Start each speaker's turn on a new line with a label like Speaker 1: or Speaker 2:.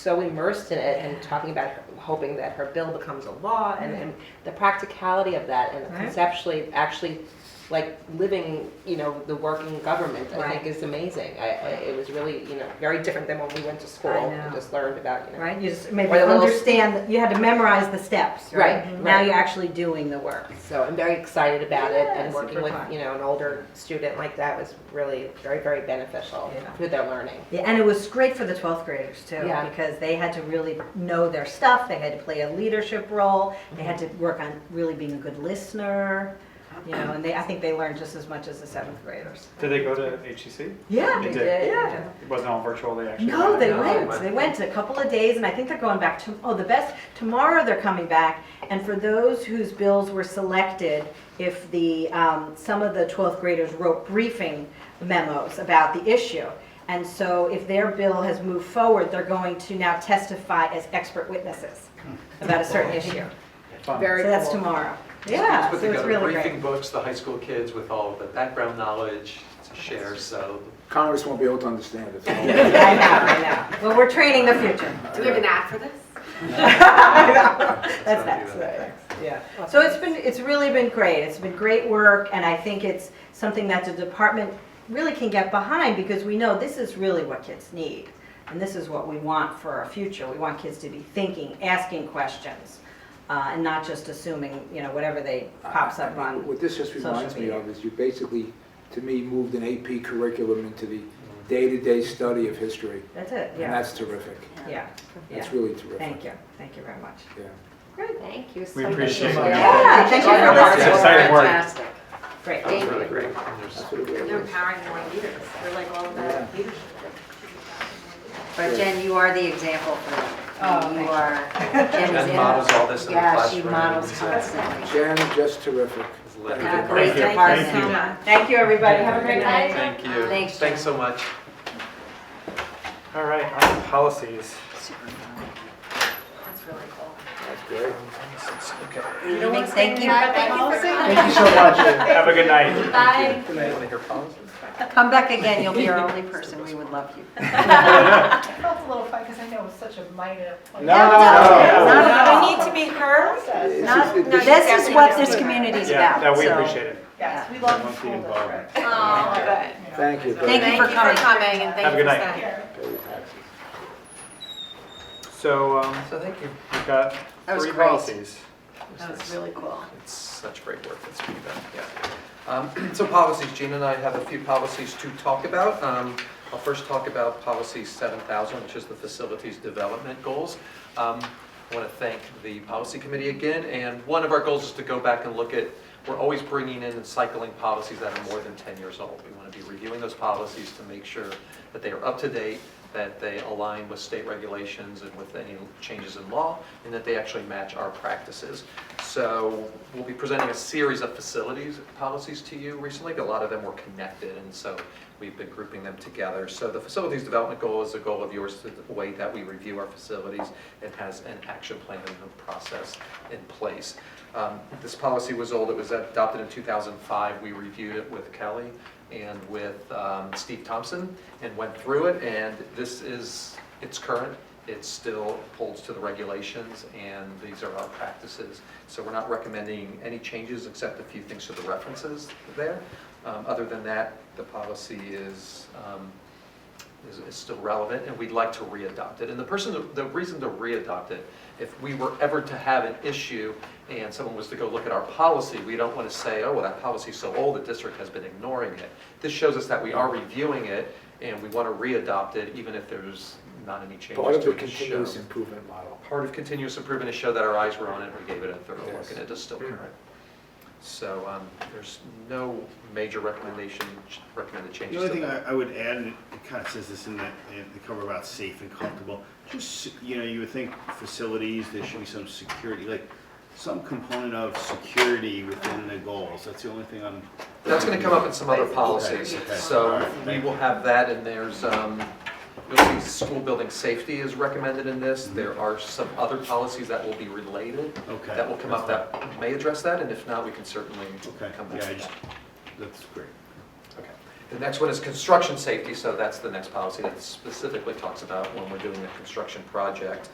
Speaker 1: so immersed in it and talking about her, hoping that her bill becomes a law and, and the practicality of that and
Speaker 2: Right.
Speaker 1: conceptually actually like living you know the working government i
Speaker 2: Right.
Speaker 1: think is amazing I, I, it was really you know very different than when we went to school
Speaker 2: I
Speaker 1: and
Speaker 2: know.
Speaker 1: just learned about you know
Speaker 2: Right, you just maybe
Speaker 1: Or the little-
Speaker 2: understand, that you had to memorize the steps, right?
Speaker 1: Right,
Speaker 2: Now
Speaker 1: right.
Speaker 2: you're actually doing the work.
Speaker 1: So I'm very excited about it and
Speaker 2: Yeah,
Speaker 1: working
Speaker 2: super
Speaker 1: with,
Speaker 2: fun.
Speaker 1: you know, an older student like that was really very, very beneficial
Speaker 2: Yeah.
Speaker 1: to their learning.
Speaker 2: Yeah, and it was great for the 12th graders too,
Speaker 1: Yeah.
Speaker 2: because they had to really know their stuff, they had to play a leadership role, they had to work on really being a good listener, you know, and they, I think they learned just as much as the 7th graders.
Speaker 3: Did they go to HCC?
Speaker 2: Yeah,
Speaker 3: They
Speaker 2: they
Speaker 3: did.
Speaker 2: did,
Speaker 1: Yeah.
Speaker 2: yeah.
Speaker 3: It wasn't all virtual, they actually.
Speaker 2: No, they
Speaker 3: went.
Speaker 2: went. They went a couple of days, and I think they're going back to, oh, the best, tomorrow they're coming back. And for those whose bills were selected, if the, um, some of the 12th graders wrote briefing memos about the issue. And so if their bill has moved forward, they're going to now testify as expert witnesses
Speaker 4: Hmm.
Speaker 2: about a certain issue.
Speaker 3: Fun.
Speaker 1: Very
Speaker 2: So that's
Speaker 1: cool.
Speaker 2: tomorrow. Yeah,
Speaker 4: Put
Speaker 2: so it's
Speaker 4: together
Speaker 2: really great.
Speaker 4: briefing books, the high school kids with all the background knowledge to share, so
Speaker 5: Congress won't be able to understand it.
Speaker 2: I know, I know. Well, we're training the future.
Speaker 6: Do we have an ad for this?
Speaker 2: That's
Speaker 4: Sorry,
Speaker 2: next,
Speaker 4: do
Speaker 2: that's
Speaker 4: that.
Speaker 2: next. Yeah. So it's been, it's really been great. It's been great work, and I think it's something that the department really can get behind because we know this is really what kids need. And this is what we want for our future. We want kids to be thinking, asking questions, uh, and not just assuming, you know, whatever they pops up on.
Speaker 5: What this just
Speaker 2: Social
Speaker 5: reminds me
Speaker 2: media.
Speaker 5: of is you basically, to me, moved an AP curriculum into the day-to-day study of history.
Speaker 2: That's it,
Speaker 5: And
Speaker 2: yeah,
Speaker 5: that's terrific.
Speaker 2: yeah, yeah.
Speaker 5: That's really terrific.
Speaker 2: Thank you, thank you very much.
Speaker 5: Yeah.
Speaker 1: Thank you so
Speaker 3: We
Speaker 1: much.
Speaker 3: appreciate it.
Speaker 2: Yeah, thank you for
Speaker 3: It's
Speaker 2: listening.
Speaker 3: exciting work.
Speaker 6: Fantastic.
Speaker 2: Great.
Speaker 4: That was really great. And there's-
Speaker 5: That's what it really
Speaker 6: They're
Speaker 5: is.
Speaker 6: empowering more leaders. They're like all about leadership.
Speaker 7: But Jen, you are the example for them.
Speaker 2: Oh,
Speaker 7: You
Speaker 2: thank
Speaker 7: are. Jen's
Speaker 4: Jen
Speaker 7: in-
Speaker 4: models all this in the
Speaker 7: Yeah, she
Speaker 4: classroom.
Speaker 7: models
Speaker 4: It's, uh,
Speaker 7: constantly.
Speaker 5: Jen, just terrific.
Speaker 4: it's lit.
Speaker 7: Yeah,
Speaker 3: Thank
Speaker 7: Great
Speaker 3: you.
Speaker 7: department.
Speaker 3: Thank you.
Speaker 2: Thank you, everybody. Have a great night.
Speaker 4: Thank you.
Speaker 7: Thanks, Jen.
Speaker 4: Thanks so much.
Speaker 3: All right, on to policies.
Speaker 6: That's really cool.
Speaker 5: That's great.
Speaker 7: Thank- Thank you.
Speaker 3: Thank you so much. Have a good night.
Speaker 6: Bye.
Speaker 4: Want to hear policies?
Speaker 7: Come back again, you'll be our only person, we would love you.
Speaker 8: I felt a little funny because I know it was such a minor.
Speaker 3: No, no, no.
Speaker 2: We need to meet her.
Speaker 5: It's
Speaker 7: Not-
Speaker 5: just- it-
Speaker 7: This is what this community's
Speaker 3: Yeah,
Speaker 7: about.
Speaker 3: no, we
Speaker 7: so
Speaker 3: appreciate it.
Speaker 8: Yes, we love the
Speaker 3: Everyone's
Speaker 8: school
Speaker 3: involved.
Speaker 8: district.
Speaker 6: Oh, good.
Speaker 5: Thank you.
Speaker 7: Thank you for coming.
Speaker 6: and
Speaker 3: Have
Speaker 6: thank
Speaker 3: a
Speaker 6: you
Speaker 3: good
Speaker 6: for
Speaker 3: night.
Speaker 6: staying.
Speaker 3: So, um,
Speaker 4: So thank you.
Speaker 3: we've got
Speaker 7: That was
Speaker 3: three
Speaker 7: great.
Speaker 3: policies.
Speaker 6: That was really cool.
Speaker 4: It's such great work that's being done, yeah. Um, So policies, Gina and I have a few policies to talk about. Um, I'll first talk about policy 7,000, which is the facilities development goals. Um, I want to thank the policy committee again, and one of our goals is to go back and look at, we're always bringing in and cycling policies that are more than 10 years old. We want to be reviewing those policies to make sure that they are up to date, that they align with state regulations and with any changes in law, and that they actually match our practices. So we'll be presenting a series of facilities policies to you recently. A lot of them were connected, and so we've been grouping them together. So the facilities development goal is a goal of yours, the way that we review our facilities. It has an action plan and a process in place. Um, This policy was old, it was adopted in 2005. We reviewed it with Kelly and with um, Steve Thompson and went through it. And this is, it's current, it still holds to the regulations, and these are our practices. So we're not recommending any changes except a few things to the references there. Um, Other than that, the policy is, um, is, is still relevant, and we'd like to readopt it. And the person, the reason to readopt it, if we were ever to have an issue and someone was to go look at our policy, we don't want to say, oh, well, that policy's so old, the district has been ignoring it. This shows us that we are reviewing it, and we want to readopt it, even if there's not any changes
Speaker 5: Part of
Speaker 4: to
Speaker 5: the
Speaker 4: it shown.
Speaker 5: continuous improvement model.
Speaker 4: Part of continuous improvement is show that our eyes were on it, we gave it a thorough look,
Speaker 5: Yes.
Speaker 4: and it is still current. So um, there's no major recommendation, recommended
Speaker 9: The
Speaker 4: changes
Speaker 9: only
Speaker 4: to
Speaker 9: thing
Speaker 4: that.
Speaker 9: I, I would add, and it kind of says this in the, in the cover about safe and comfortable, just, s- you know, you would think facilities, there should be some security, like, some component of security within the goals, that's the only thing I'm.
Speaker 4: That's gonna come up in some other policies,
Speaker 9: Okay, okay, all
Speaker 4: so
Speaker 9: right.
Speaker 4: we will have that, and there's, um, you'll see school building safety is recommended in this. There are some other policies that will be related,
Speaker 9: Okay.
Speaker 4: that will come up that may address that, and if not, we can certainly
Speaker 9: Okay,
Speaker 4: come back
Speaker 9: yeah, I
Speaker 4: to
Speaker 9: just,
Speaker 4: that.
Speaker 9: that's great.
Speaker 4: Okay. The next one is construction safety, so that's the next policy that specifically talks about when we're doing a construction project,